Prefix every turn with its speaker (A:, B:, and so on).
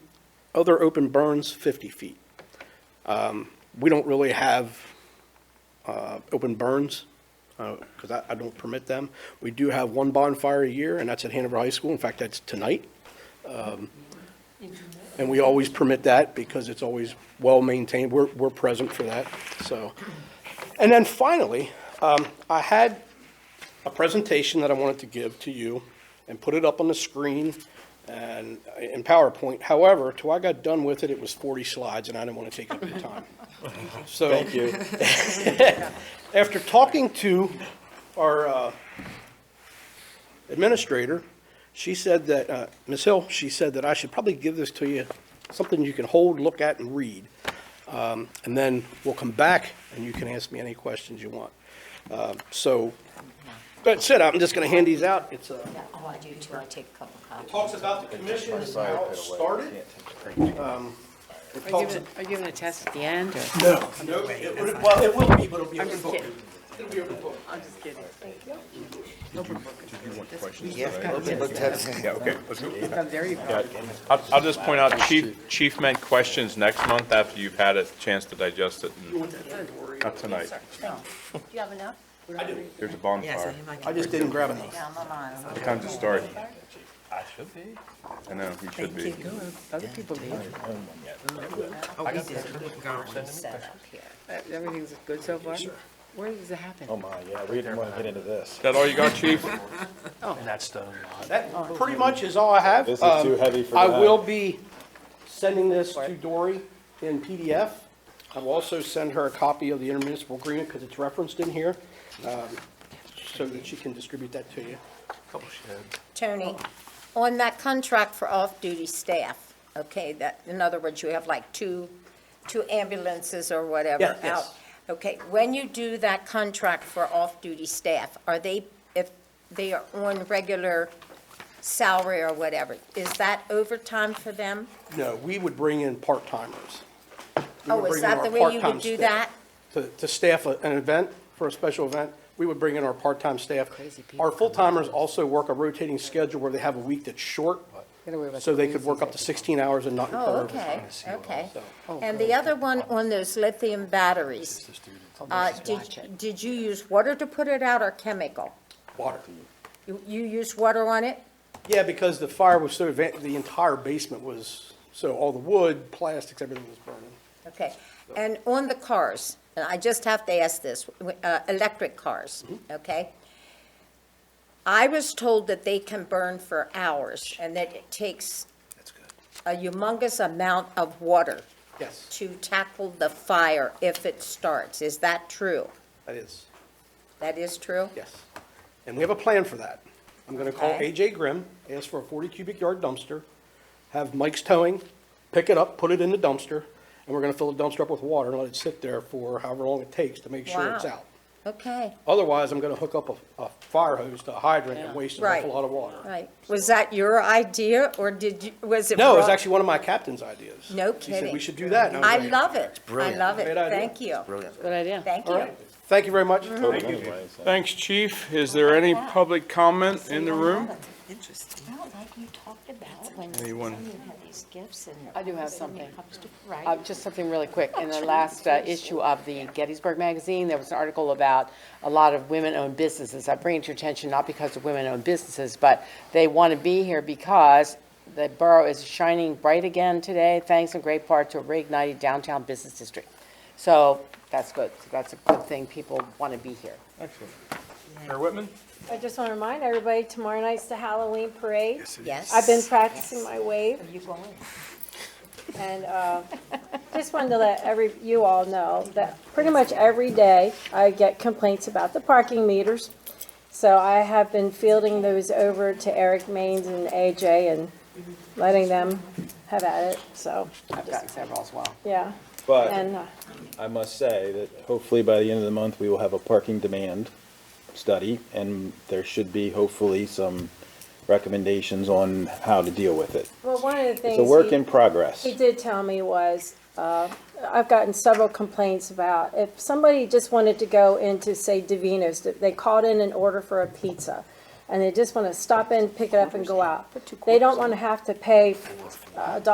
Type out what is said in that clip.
A: Other open burns, 50 feet. Um, We don't really have uh, open burns, because I I don't permit them. We do have one bonfire a year, and that's at Hanover High School. In fact, that's tonight. Um, And we always permit that because it's always well-maintained. We're, we're present for that, so. And then finally, um, I had a presentation that I wanted to give to you and put it up on the screen and in PowerPoint. However, till I got done with it, it was 40 slides and I didn't want to take up your time. So. Thank you. After talking to our, uh, administrator, she said that, uh, Ms. Hill, she said that I should probably give this to you, something you can hold, look at, and read. Um, And then we'll come back, and you can ask me any questions you want. Um, So, that's it, I'm just going to hand these out. It's, uh,
B: Yeah, Oh, I do too, I take a couple copies.
A: talks about the commission and how it started. Um, It
C: Are you
A: talks,
C: giving, are you giving a test at the end, or?
A: no, no, it would- well, it will be, but it'll be
C: I'm
A: open
C: just
A: book.
C: kidding.
A: It'll be open book.
C: I'm just kidding.
D: Yeah, okay, let's go.
C: I'm very proud.
D: I'll, I'll just point out, chief, chief meant questions next month after you've had a chance to digest it. and- Not tonight.
B: No. Do you have enough?
D: There's a bonfire.
A: I just didn't grab enough.
B: Yeah, I'm on.
D: What time's it start? I should be. I know, you should be.
C: Other people leave.
B: Set up here.
C: Everything's good so far? Where does it happen?
E: Oh my, yeah, we didn't want to get into this.
D: Is that all you got, chief?
A: That pretty much is all I have.
E: This is
A: Um,
E: too heavy for
A: I
E: that.
A: will be sending this to Dory in PDF. I will also send her a copy of the intermunicipal agreement because it's referenced in here, um, so that she can distribute that to you.
B: Tony, on that contract for off-duty staff, okay, that, in other words, you have like two, two ambulances or whatever
A: Yeah, yes.
B: out. Okay, when you do that contract for off-duty staff, are they, if they are on regular salary or whatever, is that overtime for them?
A: No, we would bring in part-timers. We would
B: Oh,
A: bring in
B: is that
A: our
B: the way you
A: part-time
B: would do
A: staff.
B: that?
A: To, to staff a- an event, for a special event, we would bring in our part-time staff.
C: Crazy people
A: Our
C: come in.
A: full-timers also work a rotating schedule where they have a week that's short,
C: Gotta worry about
A: so they
C: the
A: could work up to 16 hours and not incur
B: Oh,
A: overtime.
B: okay, okay.
C: Oh,
B: And the other one on those lithium batteries, uh,
C: Watch
B: did,
C: it.
B: did you use water to put it out or chemical?
A: Water.
B: You, you used water on it?
A: Yeah, because the fire was so, advan- the entire basement was, so all the wood, plastics, everything was burning.
B: Okay. And on the cars, and I just have to ask this, uh, electric cars,
A: Mm-hmm.
B: okay? I was told that they can burn for hours and that it takes a humongous amount of water
A: Yes,
B: to tackle the fire if it starts. Is that true?
A: that is,
B: That is true?
A: yes. And we have a plan for that. I'm going to call
B: Okay.
A: AJ Grimm, ask for a 40 cubic yard dumpster, have Mike's Towing pick it up, put it in the dumpster, and we're going to fill the dumpster up with water and let it sit there for however long it takes to make sure it's
B: Wow.
A: out.
B: Okay,
A: Otherwise, I'm going to hook up a, a fire hose to a hydrant and waste an
B: Right.
A: awful lot of water.
B: right. Was that your idea, or did you, was it?
A: No, it was
B: brought-
A: actually one of my captain's ideas.
B: No
A: He said, we
B: kidding.
A: should do that. And was
B: I
A: like,
B: love it. I love it.
A: Great idea.
B: Thank you.
C: Good idea.
B: Thank
A: All
B: you. Mm-hmm.
A: right, thank you very much.
E: Anyway, so-
D: Thanks, chief. Is there any public comment in the room?
B: Well, like you talked about when
D: Anyone?
B: had these gifts and.
C: I do have something.
B: Right.
C: Uh, Just something really quick. In the last uh, issue of the Gettysburg Magazine, there was an article about a lot of women-owned businesses. I bring it to your attention not because of women-owned businesses, but they want to be here because the borough is shining bright again today, thanks in great part to a reignited downtown business district. So that's good. That's a good thing. People want to be here.
D: Excellent. Mayor Whitman?
F: I just want to remind everybody, tomorrow night's the Halloween parade.
B: Yes.
F: I've been practicing my wave,
B: You going?
F: and uh, just wanted to let every, you all know that pretty much every day, I get complaints about the parking meters. So I have been fielding those over to Eric Maines and AJ and letting them have at it, so,
C: I've gotten several as well.
F: yeah. And
E: But
F: uh,
E: I must say that hopefully by the end of the month, we will have a parking demand study, and there should be hopefully some recommendations on how to deal with it.
F: Well, one of the things.
E: It's a work
F: he-
E: in progress.
F: He did tell me was, uh, I've gotten several complaints about, if somebody just wanted to go into, say, Davino's, that they called in an order for a pizza, and they just want to stop in, pick it up, and go out. They don't want to have to pay uh, a dollar